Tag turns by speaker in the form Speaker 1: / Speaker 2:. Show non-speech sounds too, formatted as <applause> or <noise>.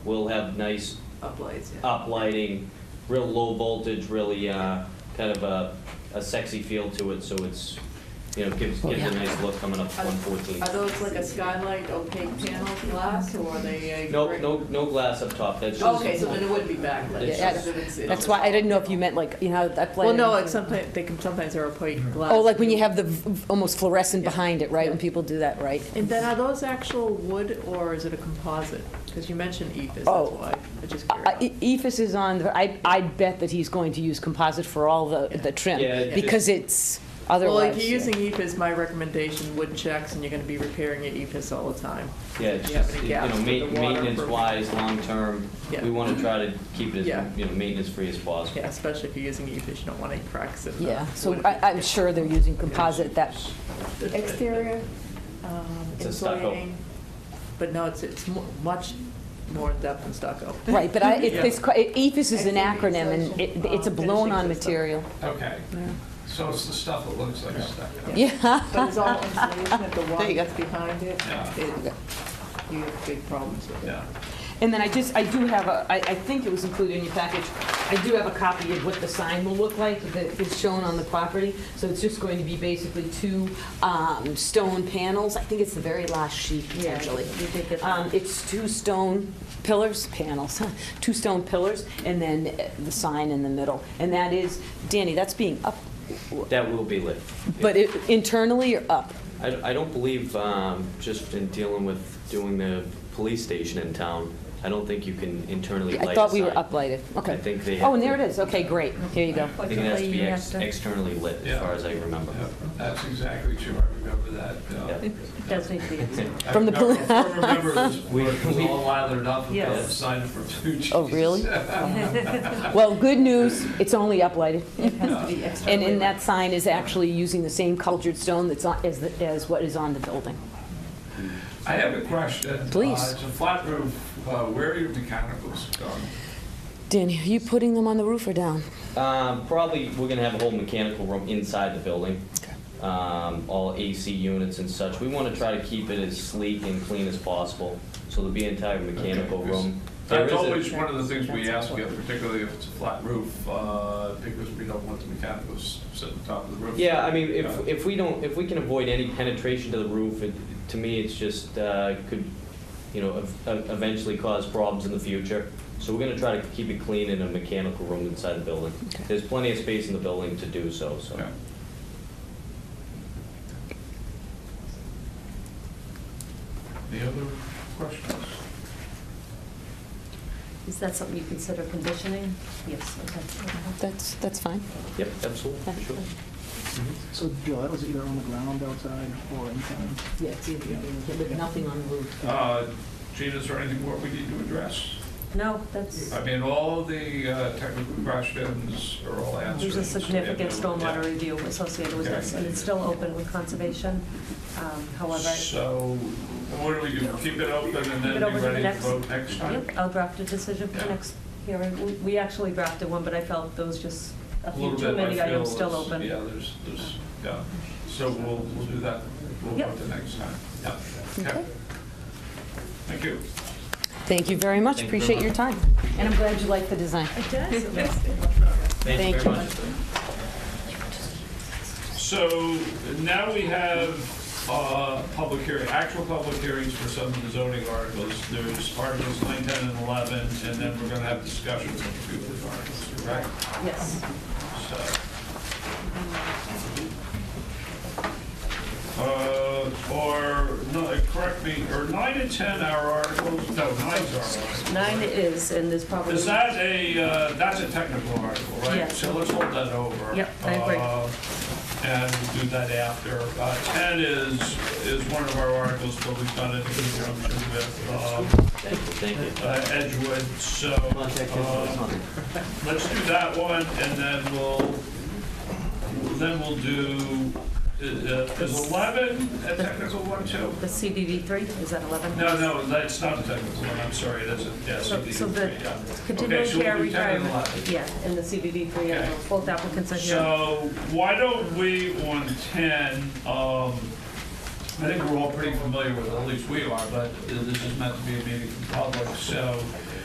Speaker 1: We'll have nice
Speaker 2: uplights, yeah.
Speaker 1: uplighting, real low voltage, really uh, kind of a, a sexy feel to it, so it's, you know, gives, gives a nice look coming up to
Speaker 2: Are-
Speaker 1: 114.
Speaker 2: Are those like a skylight opaque panel glass, or are they? uh,
Speaker 1: No,
Speaker 2: gray?
Speaker 1: no, no glass up top, that's just.
Speaker 2: Okay, so then it would be backlit.
Speaker 1: It's
Speaker 3: Yeah,
Speaker 2: just that it's- it's-
Speaker 3: That's why I didn't know if you meant like, you know, that
Speaker 2: Well,
Speaker 3: blend.
Speaker 2: no, like sometimes, they can, sometimes they're opaque glass.
Speaker 3: Oh, like when you have the v- almost fluorescent
Speaker 2: Yeah.
Speaker 3: behind it, right? When people do that, right?
Speaker 2: And then are those actual wood, or is it a composite? Because you mentioned E EPIS, that's
Speaker 3: Oh.
Speaker 2: why, I just
Speaker 3: Uh,
Speaker 2: curious.
Speaker 3: E- Ephes is on, the- I, I bet that he's going to use composite for all the, the
Speaker 1: Yeah,
Speaker 3: trim,
Speaker 1: it
Speaker 3: because it's otherwise.
Speaker 2: Well, if you're using E EPIS, my recommendation, wood checks, and you're gonna be repairing your E EPIS all the time.
Speaker 1: Yeah, it's
Speaker 2: You have
Speaker 1: just,
Speaker 2: any
Speaker 1: you know,
Speaker 2: gaps with the
Speaker 1: ma-
Speaker 2: water
Speaker 1: maintenance-wise, long-term,
Speaker 2: Yeah.
Speaker 1: we want to try to keep it
Speaker 2: Yeah.
Speaker 1: as, you know, maintenance-free as possible.
Speaker 2: Yeah, especially if you're using E EPIS, you don't want any cracks in the
Speaker 3: Yeah, so
Speaker 2: wood.
Speaker 3: I, I'm sure they're using composite that,
Speaker 2: exterior um,
Speaker 1: It's a stucco.
Speaker 2: insulating, but no, it's, it's mo- much more in-depth than stucco.
Speaker 3: right, but I, it-
Speaker 2: Yeah.
Speaker 3: it's, qui- it- Ephes is an
Speaker 2: Exterior
Speaker 3: acronym and
Speaker 2: insulation,
Speaker 3: it, it's a
Speaker 2: um,
Speaker 3: blown-on
Speaker 2: finishing system.
Speaker 3: material.
Speaker 4: Okay, so it's the stuff that looks like stuff.
Speaker 2: Yeah.
Speaker 3: Yeah,
Speaker 2: But it's all insulation,
Speaker 3: <laughs>
Speaker 2: if the water
Speaker 3: you go.
Speaker 2: gets behind it,
Speaker 4: Yeah.
Speaker 2: it, you have big problems with it.
Speaker 4: Yeah,
Speaker 3: and then I just, I do have a, I, I think it was included in your package, I do have a copy of what the sign will look like that is shown on the property. So it's just going to be basically two, um, stone panels, I think it's the very last sheet potentially. Um, It's two stone pillars, panels, <laughs> huh, two stone pillars, and then uh, the sign in the middle. And that is, Danny, that's being up,
Speaker 1: That will be lit.
Speaker 3: but it- internally or up?
Speaker 1: I, I don't believe, um, just in dealing with doing the police station in town, I don't think you can internally light
Speaker 3: I
Speaker 1: a
Speaker 3: thought we were
Speaker 1: sign.
Speaker 3: uplighted, okay.
Speaker 1: I think they.
Speaker 3: Oh, and there it is, okay, great, here you go.
Speaker 1: I think it has to be ex- externally lit, as
Speaker 4: Yeah.
Speaker 1: far as I remember.
Speaker 4: yeah, that's exactly true, I remember that. uh,
Speaker 1: Yeah.
Speaker 5: It does need to be examined.
Speaker 4: I
Speaker 3: From the
Speaker 4: remember-
Speaker 3: poli-
Speaker 4: I remember this,
Speaker 1: We-
Speaker 4: where it was
Speaker 1: we-
Speaker 4: all lathered up and
Speaker 5: Yes.
Speaker 4: signed for two Jesus.
Speaker 3: Oh, <laughs> really? Well, good news, it's only uplighted.
Speaker 4: Yeah.
Speaker 3: And in that sign is actually using the same cultured stone that's on, as, the- as what is on the building.
Speaker 4: <laughs> I have a question.
Speaker 3: Please.
Speaker 4: Uh, It's a flat roof, uh, where are your mechanicals going?
Speaker 3: Danny, are you putting them on the roof or down?
Speaker 1: Um, probably, we're gonna have a whole mechanical room inside the building. Um, all AC units and such. We wanna try to keep it as sleek and clean as possible, so there'll be an entire mechanical
Speaker 4: Okay, 'cause
Speaker 1: room. There
Speaker 4: That's
Speaker 1: is a-
Speaker 4: always one of the things we
Speaker 2: That's
Speaker 4: ask, you, particularly if it's a flat roof, uh, because we don't want the mechanicals sitting on top of the roof.
Speaker 1: Yeah, I mean, if,
Speaker 4: Yeah.
Speaker 1: if we don't, if we can avoid any penetration to the roof, it, to me, it's just, uh, could, you know, ev- ev- eventually cause problems in the future. So we're gonna try to keep it clean in a mechanical room inside the building.
Speaker 3: Okay.
Speaker 1: There's plenty of space in the building to do so, so.
Speaker 4: Yeah. Any other questions?
Speaker 5: Is that something you consider conditioning? Yes, okay.
Speaker 3: That's, that's fine.
Speaker 1: Yep, absolutely,
Speaker 3: Yeah.
Speaker 1: sure.
Speaker 6: So July was either on the ground outside or inside?
Speaker 3: Yeah, but nothing on the roof.
Speaker 4: Uh, Gina, is there anything more we need to address?
Speaker 5: No, that's,
Speaker 4: I mean, all the uh, technical questions are all answered.
Speaker 5: there's a significant
Speaker 4: Yeah.
Speaker 5: stormwater review associated with this, and it's still open with conservation. Um, However,
Speaker 4: So what do we do, keep it open and
Speaker 5: Keep it
Speaker 4: then
Speaker 5: open
Speaker 4: be
Speaker 5: for
Speaker 4: ready to
Speaker 5: next-
Speaker 4: vote next time?
Speaker 5: yep, I'll draft a decision for the next hearing. We- We actually drafted one, but I felt those just, a
Speaker 4: A little
Speaker 5: few too
Speaker 4: bit, I
Speaker 5: many
Speaker 4: feel,
Speaker 5: items still
Speaker 4: is-
Speaker 5: open.
Speaker 4: Yeah, there's, there's, yeah. So we'll, we'll do that, we'll
Speaker 5: Yep.
Speaker 4: vote the next time, yeah.
Speaker 3: Okay.
Speaker 4: Thank you.
Speaker 3: Thank you very much,
Speaker 1: Thank you very
Speaker 3: appreciate your
Speaker 1: much.
Speaker 3: time. And I'm glad you like the
Speaker 2: <laughs>
Speaker 3: design.
Speaker 1: Thank you
Speaker 3: Thank you.
Speaker 1: very much.
Speaker 4: So now we have uh, public hearing, actual public hearings for some of the zoning articles. There's Articles 9, 10, and 11, and then we're going to have discussions on a few of the articles, correct?
Speaker 5: Yes.
Speaker 4: So. Uh, Or, no, correct me, or 9 and 10 are articles? No, 9's our article.
Speaker 5: Nine is, and there's probably.
Speaker 4: Is that a, uh, that's a technical article, right?
Speaker 5: Yes.
Speaker 4: So let's hold that over.
Speaker 5: Yep, I agree.
Speaker 4: Uh, And we'll do that after. Uh, 10 is, is one of our articles, but we've done it in conjunction with uh,
Speaker 1: Thank you, thank you.
Speaker 4: uh, Edgewood, so
Speaker 1: Contact info is
Speaker 4: uh,
Speaker 1: on there.
Speaker 4: let's do that one, and then we'll, then we'll do, uh, uh, is 11 a technical one too?
Speaker 5: The CBV three, is that 11?
Speaker 4: No, no, that's not a technical one, I'm sorry, that's a, yeah,
Speaker 5: So-
Speaker 4: CBD,
Speaker 5: So the
Speaker 4: yeah.
Speaker 5: continuing
Speaker 4: Okay, so we'll
Speaker 5: care
Speaker 4: do 10 and
Speaker 5: retirement,
Speaker 4: 11.
Speaker 5: yeah, and the CBD three,
Speaker 4: Okay.
Speaker 5: both applicants are here.
Speaker 4: So why don't we on 10, um, I think we're all pretty familiar with, it, at least we are, but this is meant to be a meeting for the public, so